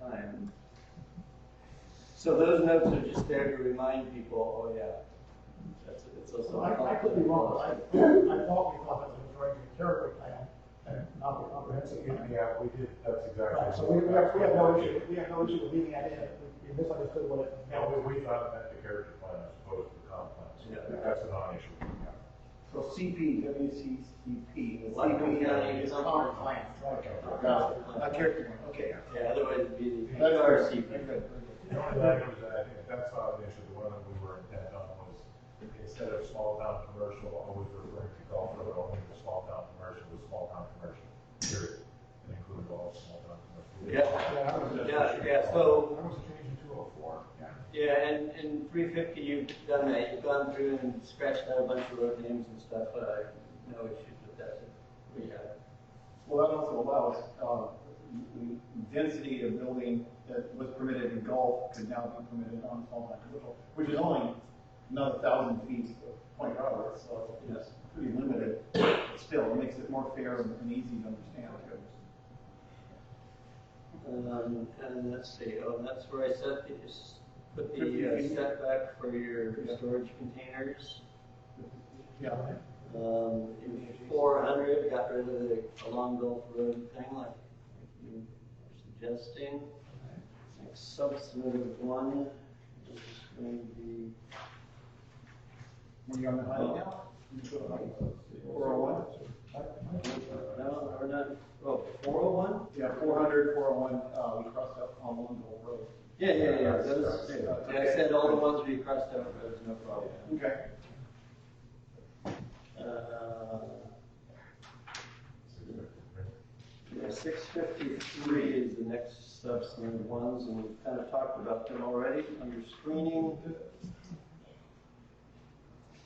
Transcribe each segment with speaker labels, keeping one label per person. Speaker 1: time. So those notes are just there to remind people, oh yeah, that's, it's also.
Speaker 2: So I, I could be wrong, but I, I thought we thought that the majority of the territory plan, and not the comprehensive plan.
Speaker 3: Yeah, we did, that's exactly.
Speaker 2: Right, so we, we have, we have no issue, we have no issue with leaving that in, we we misunderstood what it.
Speaker 3: No, we, we thought it meant the character plan as opposed to the comp plan, so
Speaker 1: Yeah.
Speaker 3: that's a non-issue.
Speaker 1: So CP, WCCP,
Speaker 4: Like, yeah,
Speaker 1: CP,
Speaker 4: it's
Speaker 1: uh,
Speaker 4: on our plan.
Speaker 2: Got it. Not character plan, okay.
Speaker 1: yeah, otherwise it'd be the
Speaker 2: That's all right.
Speaker 1: PRCP.
Speaker 2: Very good,
Speaker 3: The
Speaker 2: very
Speaker 3: only
Speaker 2: good.
Speaker 3: thing was that I think that's not an issue, the one that we were intent on was instead of small town commercial, always referring to Gulf Road, only the small town commercial was small town commercial, period. And included all small town commercial.
Speaker 1: Yeah,
Speaker 2: Yeah, I was-
Speaker 1: yeah, yeah, so,
Speaker 2: I was changing two oh four, yeah.
Speaker 1: yeah, and, and three fifty, you've done that, you've gone through and scratched out a bunch of road names and stuff, uh, no issues with that, we have.
Speaker 5: Well, that also allows, uh, the the density of building that was permitted in Gulf could now be permitted on small town commercial, which is only another thousand feet of point Roberts, so it's pretty limited. But Still, it makes it more fair and and easy to understand.
Speaker 1: Um, and let's see, oh, that's where I set the, is- put the uh,
Speaker 5: 50.
Speaker 1: setback for your storage containers.
Speaker 5: Yeah,
Speaker 1: Um, four hundred, got rid of the along Gulf Road thing like you were suggesting. Next substantive one, which is going to be
Speaker 5: when you're on the highway now. Four oh one,
Speaker 1: No, uh, or not, oh, four oh one?
Speaker 5: yeah, four hundred, four oh one, uh, we crossed up on one Gulf Road.
Speaker 1: Yeah, yeah, yeah, those, yeah, I said all the ones we crossed out, there was no problem.
Speaker 5: Okay.
Speaker 1: Uh, six fifty-three is the next substantive ones, and we've kind of talked about them already, under screening.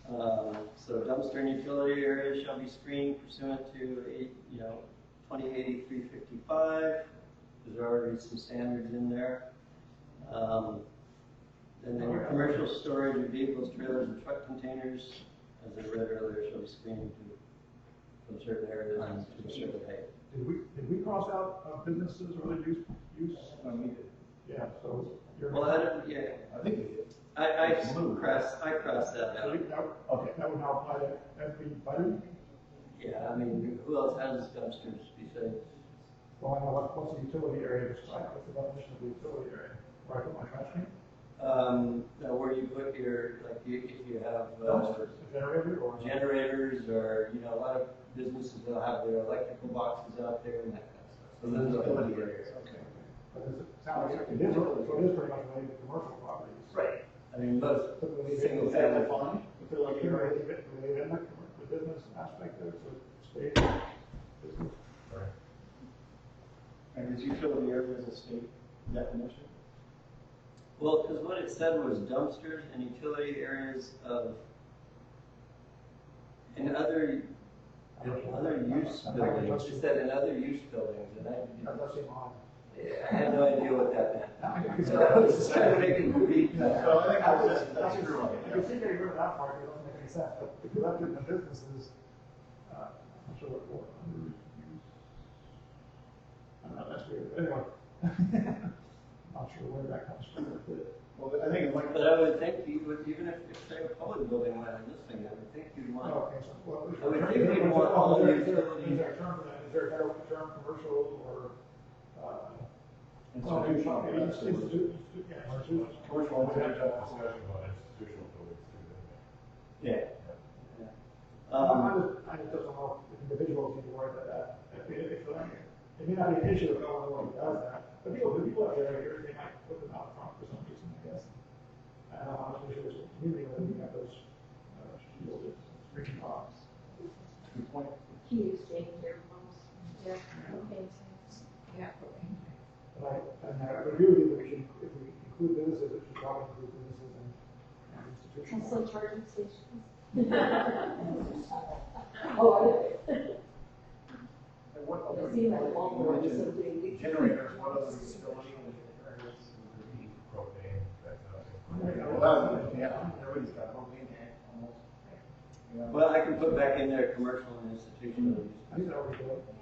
Speaker 1: Uh, so dumpster and utility area shall be screened pursuant to eight, you know, twenty eighty-three fifty-five. There's already some standards in there. Um, and then your commercial storage of vehicles, trailers, and truck containers, as I read earlier, shall be screened to from certain areas and to a certain height.
Speaker 2: Did we, did we cross out uh, businesses or other use, use?
Speaker 5: No, we did.
Speaker 2: Yeah, so. you're-
Speaker 1: Well, I don't, yeah,
Speaker 5: I think we did.
Speaker 1: I, I cross, I crossed that
Speaker 2: So
Speaker 1: out.
Speaker 2: you- that- Okay, that would now apply to every,
Speaker 1: Yeah, I mean, who else has dumpsters besides?
Speaker 2: well, I know what, what's the utility area described, what's the definition of the utility area? Where I put my trash can?
Speaker 1: Um, now where you put your, like, you- if you have uh,
Speaker 2: Dumpsters, a generator or?
Speaker 1: generators or, you know, a lot of businesses will have their electrical boxes out there and that kind of stuff. So those are utility areas.
Speaker 5: Okay.
Speaker 2: But it's, it sounds like it is, so it is pretty much related to commercial properties.
Speaker 5: Right.
Speaker 1: I mean, most
Speaker 2: Typically, they-
Speaker 1: single
Speaker 5: Is that
Speaker 1: family.
Speaker 5: defined?
Speaker 2: But they're like, you're in the, they're in the commercial business aspect there, so state. business.
Speaker 5: And is utility area as a state definition?
Speaker 1: Well, because what it said was dumpsters and utility areas of, and other, and other use buildings, it said in other use buildings, and I,
Speaker 2: That does seem odd.
Speaker 1: I had no idea what that meant.
Speaker 2: I
Speaker 1: So I was just trying to make it read that.
Speaker 5: So I think
Speaker 2: I
Speaker 5: that's,
Speaker 2: was-
Speaker 5: that's a good one.
Speaker 2: I can see getting rid of that part, it doesn't make any sense, but if you left it in the businesses, uh, I'm sure what for. I don't know, that's weird, anyway. Not sure where that comes from.
Speaker 5: Well, I think it might,
Speaker 1: But I would think you would, even if, if they were public building went in this thing, I would think you'd
Speaker 2: No,
Speaker 1: want,
Speaker 2: okay, so, well, is
Speaker 1: I would
Speaker 2: there-
Speaker 1: think
Speaker 2: is
Speaker 1: they'd
Speaker 2: there-
Speaker 1: want all
Speaker 2: is there-
Speaker 1: the
Speaker 2: is there-
Speaker 1: utility-
Speaker 2: Is there a term for that, is there a better term, commercial or, uh?
Speaker 5: institutional,
Speaker 2: well, it's- it's-
Speaker 5: absolutely.
Speaker 2: it's- yeah,
Speaker 3: Commercial,
Speaker 2: it's-
Speaker 5: Commercial,
Speaker 3: we had that
Speaker 5: institutional.
Speaker 3: discussion about institutional buildings too, didn't we?
Speaker 1: yeah.
Speaker 2: I
Speaker 1: Um,
Speaker 2: just, I just don't know if individuals need to worry about that. If it- if, uh, It may not be an issue if no one really does that, but people, the people out there, you're- they might put them out front for some reason, I guess. I don't know how much issue is with the community, whether we have those, uh, shields, freaking box.
Speaker 5: good point.
Speaker 6: He used to hear most, yeah, okay, so, yeah.
Speaker 2: But I, and I agree with you that we should, if we include businesses, it should probably include businesses and and
Speaker 6: And
Speaker 2: institutions.
Speaker 6: some charging stations. Oh, I did.
Speaker 5: And what other-
Speaker 6: It seemed like long
Speaker 5: you
Speaker 6: road was so
Speaker 5: mentioned
Speaker 6: big.
Speaker 5: Generators, what other utility areas would be?
Speaker 3: Propane, that kind of thing.
Speaker 2: Yeah,
Speaker 5: Well, that's- yeah, everybody's got propane tank almost. Yeah.
Speaker 1: well, I can put back in there commercial and institutional use.
Speaker 2: I think that would be good.